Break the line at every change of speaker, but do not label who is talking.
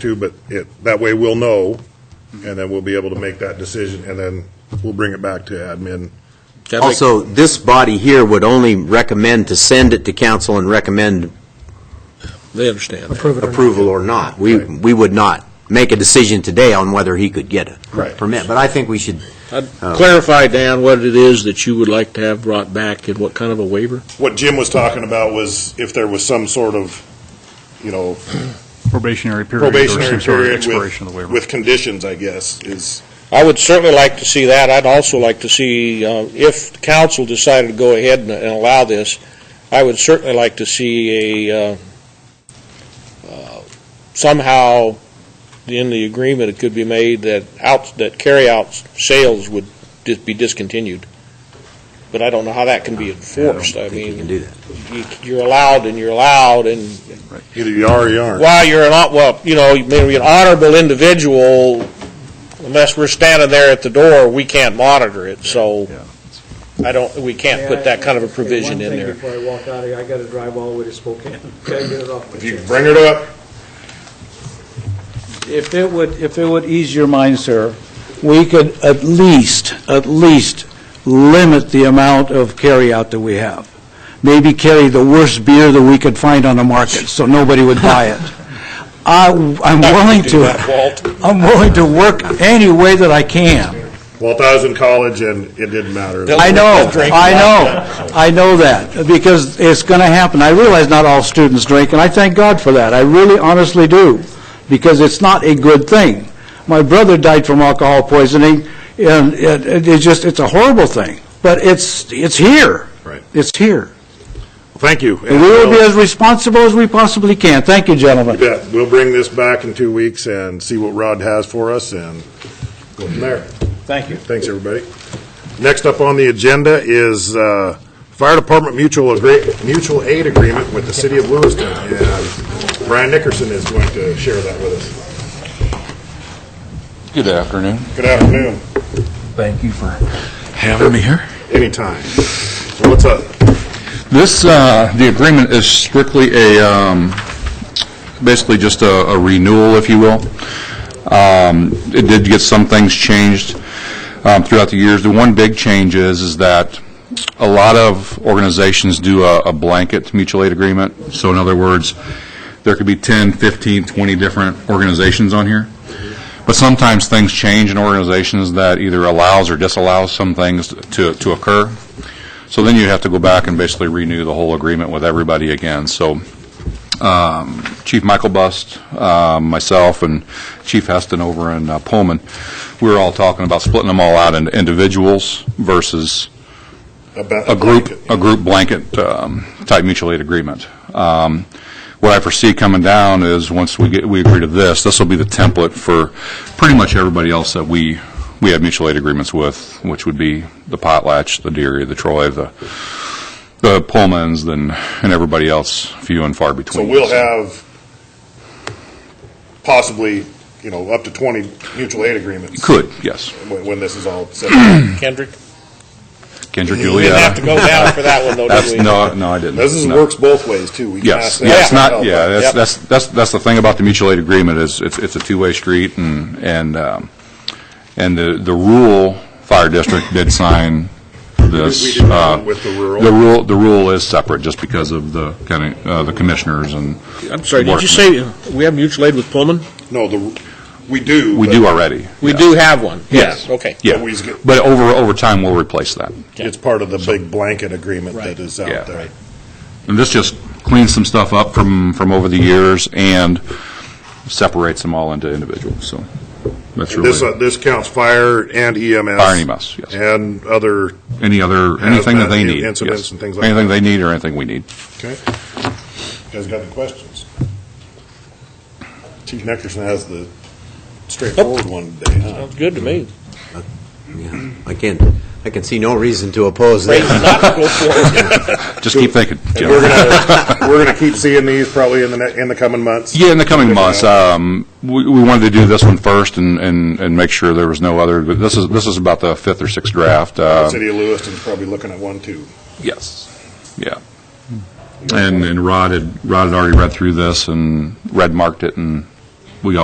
too, but it, that way we'll know, and then we'll be able to make that decision, and then we'll bring it back to admin.
I'd like-
Also, this body here would only recommend to send it to council and recommend
They understand. that.
Approve it or not.
approval or not. We,
Right.
we would not make a decision today on whether he could get a
Right.
permit, but I think we should,
I'd
Oh.
Clarify, Dan, what it is that you would like to have brought back and what kind of a waiver?
What Jim was talking about was if there was some sort of, you know,
probationary period or
probationary
some sort of
period
expiration of the
with,
waiver.
with conditions, I guess, is,
I would certainly like to see that. I'd also like to see, uh, if the council decided to go ahead and and allow this, I would certainly like to see a, uh, uh, somehow in the agreement, it could be made that out, that carry-out sales would dis- be discontinued. But I don't know how that can be
I don't
enforced. I
think we can
mean,
do that.
you- you're allowed and you're allowed, and
either you are or you aren't.
while you're an, hon- well, you know, you may be an honorable individual, unless we're standing there at the door, we can't monitor it, so
Yeah.
I don't, we can't put that kind of a provision in
One
there.
thing before I walk out of here, I gotta drive all the way to Spokane, gotta get it off my
If you
chest.
bring it up,
If it would, if it would ease your mind, sir, we could at least, at least limit the amount of carryout that we have. Maybe carry the worst beer that we could find on the market, so nobody would buy it. I, I'm willing
Do that,
to,
Walt.
I'm willing to work any way that I can.
Walt, I was in college, and it didn't matter.
I know, I know, I know that, because it's going to happen. I realize not all students drink, and I thank God for that. I really honestly do, because it's not a good thing. My brother died from alcohol poisoning, and it- it- it's just, it's a horrible thing, but it's, it's here.
Right.
It's here.
Thank you.
And we will be as responsible as we possibly can. Thank you, gentlemen.
Yeah, we'll bring this back in two weeks and see what Rod has for us and go from there. Thank you. Thanks, everybody. Next up on the agenda is uh, Fire Department Mutual Agree- Mutual Aid Agreement with the City of Lewiston. And Brian Nickerson is going to share that with us.
Good afternoon.
Good afternoon.
Thank you for having me here.
Anytime. So what's up?
This, uh, the agreement is strictly a, um, basically just a a renewal, if you will. Um, It did get some things changed um, throughout the years. The one big change is, is that a lot of organizations do a a blanket mutual aid agreement. So in other words, there could be 10, 15, 20 different organizations on here. But sometimes things change in organizations that either allows or disallows some things to to occur. So then you have to go back and basically renew the whole agreement with everybody again. So um, Chief Michael Bust, um, myself, and Chief Heston over in uh, Pullman, we were all talking about splitting them all out into individuals versus
About
a group, a group blanket um, type mutual aid agreement. Um, What I foresee coming down is, once we get, we agree to this, this will be the template for pretty much everybody else that we, we have mutual aid agreements with, which would be the Potlatch, the Deary, the Troy, the, the Pullmans, and, and everybody else few and far
So
between.
we'll have possibly, you know, up to 20 mutual aid agreements
Could, yes.
when when this is all set. up.
Kendrick,
Kendrick,
You
Julia.
we didn't have to go down for that one, though,
That's,
did we?
no, no, I didn't.
This is,
No.
works both ways, too. We can ask
Yes,
that.
yeah, it's not,
help.
yeah, that's,
Yep.
that's, that's, that's the thing about the mutual aid agreement is it's, it's a two-way street and, and, um, and the, the rural fire district did sign this.
We did not
uh,
with the rural.
The rule, the rule is separate just because of the kind of, uh, the commissioners and.
I'm sorry, did you
Workman.
say we have mutual aid with Pullman?
No, the, we do.
We
but
do already.
We
yeah.
do have one.
Yes.
Okay.
Yeah,
But we just get-
but over, over time, we'll replace that.
It's part of the big blanket agreement that is
Yeah.
out there.
Right. And this just cleans some stuff up from, from over the years and separates them all into individuals, so that's really.
This, uh, this counts fire and EMS.
Fire and E EMS, yes.
And other,
Any other, anything that they
Hazmat
need.
incidents
yes.
and things like
Anything
that.
they need or anything we need.
okay. You guys got any questions? Chief Neckerson has the straightforward one today, huh?
Sounds good to me.
Yeah, I can, I can see no reason to oppose
Great,
that.
not to go for it.
Just keep thinking.
And
Jim.
We're gonna, we're gonna keep seeing these probably in the, ne- in the coming months.
Yeah, in the coming months,
Different
um, we, we wanted to do this one first and, and, and make sure there was no other, but this is, this is about the fifth or sixth draft.
out-
uh,
City of Lewiston's probably looking at one, too.
Yes, yeah.
Hmm.
And, and Rod had, Rod had already read through this and red marked it and